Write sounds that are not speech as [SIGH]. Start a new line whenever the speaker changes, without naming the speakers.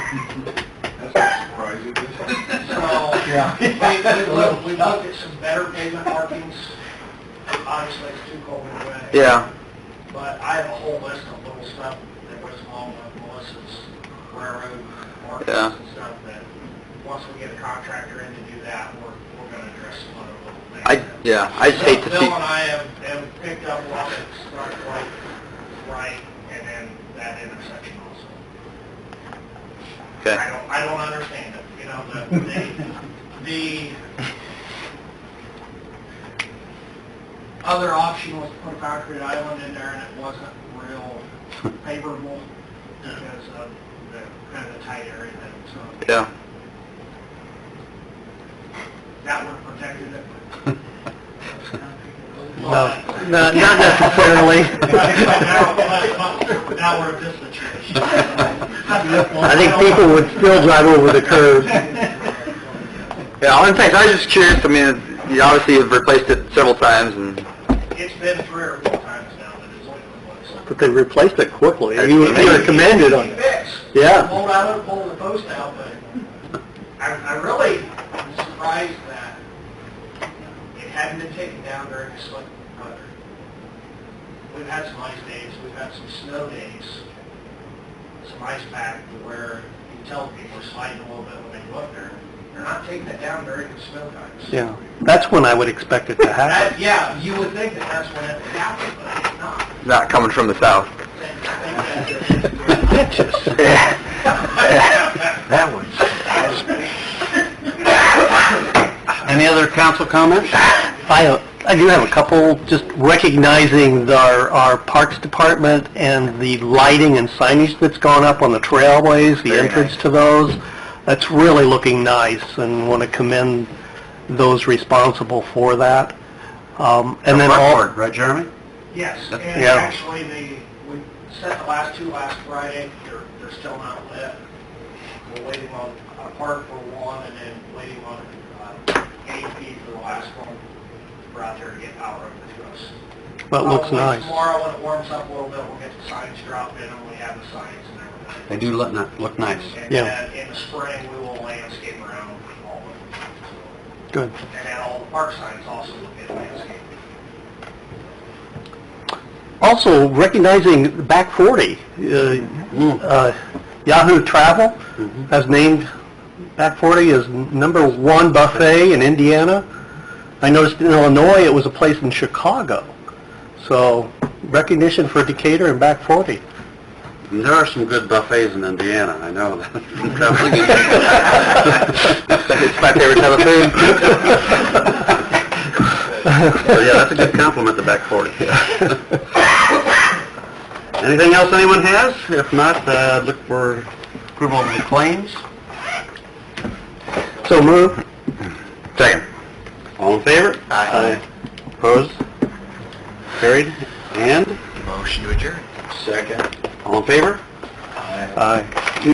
That's not surprising.
[LAUGHS] So,
[LAUGHS] Yeah.
we, we looked, we looked at some better pavement markings, obviously it's too cold in the way.
Yeah,
But I have a whole list of little stuff that was along with Melissa's railroad
Yeah.
markings and stuff that, once we get a contractor in to do that, we're, we're gonna address some other little things.
I, yeah, I just hate to
Bill and
see,
I have, have picked up one that's not quite right, and then that intersection also. I
okay,
don't, I don't understand it, you know, the, the, the other option was to put a concrete island in there, and it wasn't real favorable because of the, kind of the tight area that, so
yeah.
that would have protected it.
No, no, not necessarily.
Now we're in this situation.
[LAUGHS] I think people would still drive over the curb. Yeah, all I'm saying, is I was just curious, I mean, you obviously have replaced it several times and...
It's been three or four times now that it's been replaced.
But they replaced it quickly,
You
commended
Fixed.
Yeah.
Pulled out, of- pulled the post out, but I, I really am surprised that it hadn't been taken down during the slick weather. We've had some ice days, we've had some snow days, some ice pack to where you can tell people are sliding a little bit when they go up there. They're not taking it down during the snow times.
Yeah, that's when I would expect it to
That, yeah, you would think that that's when it would happen, but it's not.
[LAUGHS]
[LAUGHS]
Not coming from the south. [LAUGHS] That one. [LAUGHS] Any other council comments? [LAUGHS] I, I do have a couple, just recognizing the- our, our Parks Department and the lighting and signage that's gone up on the trailways, the entrance to those. That's really looking nice and want to commend those responsible for that. Um, and then all... right, Jeremy?
Yes, and
Yeah.
actually, the, we set the last two last Friday, they're, they're still not lit. We're waiting on a park for one, and then waiting on, uh, AP for the last one. We're out there to get power over to us.
That looks
Probably
nice.
Tomorrow, when it warms up a little bit, we'll get the signs dropped in, and we have the signs and everything.
They do look, look nice.
And
Yeah,
then in the spring, we will landscape around all of them.
good.
And then all the park signs also will get landscaped.
Also, recognizing the Back 40, uh, uh, Yahoo Travel has named Back 40 as number one buffet in Indiana. I noticed in Illinois, it was a place in Chicago. So recognition for Decatur and Back 40.
There are some good buffets in Indiana, I know that.
It's [LAUGHS] my favorite type of food.
So, yeah, that's a good compliment, the back
[LAUGHS]
40. Anything else anyone has? If not, uh, look for approval of the claims.
So move.
Second. All in favor?
Aye.
Opposed? Carried? And?
Motion to adjourn. Second.
All in favor?
Aye.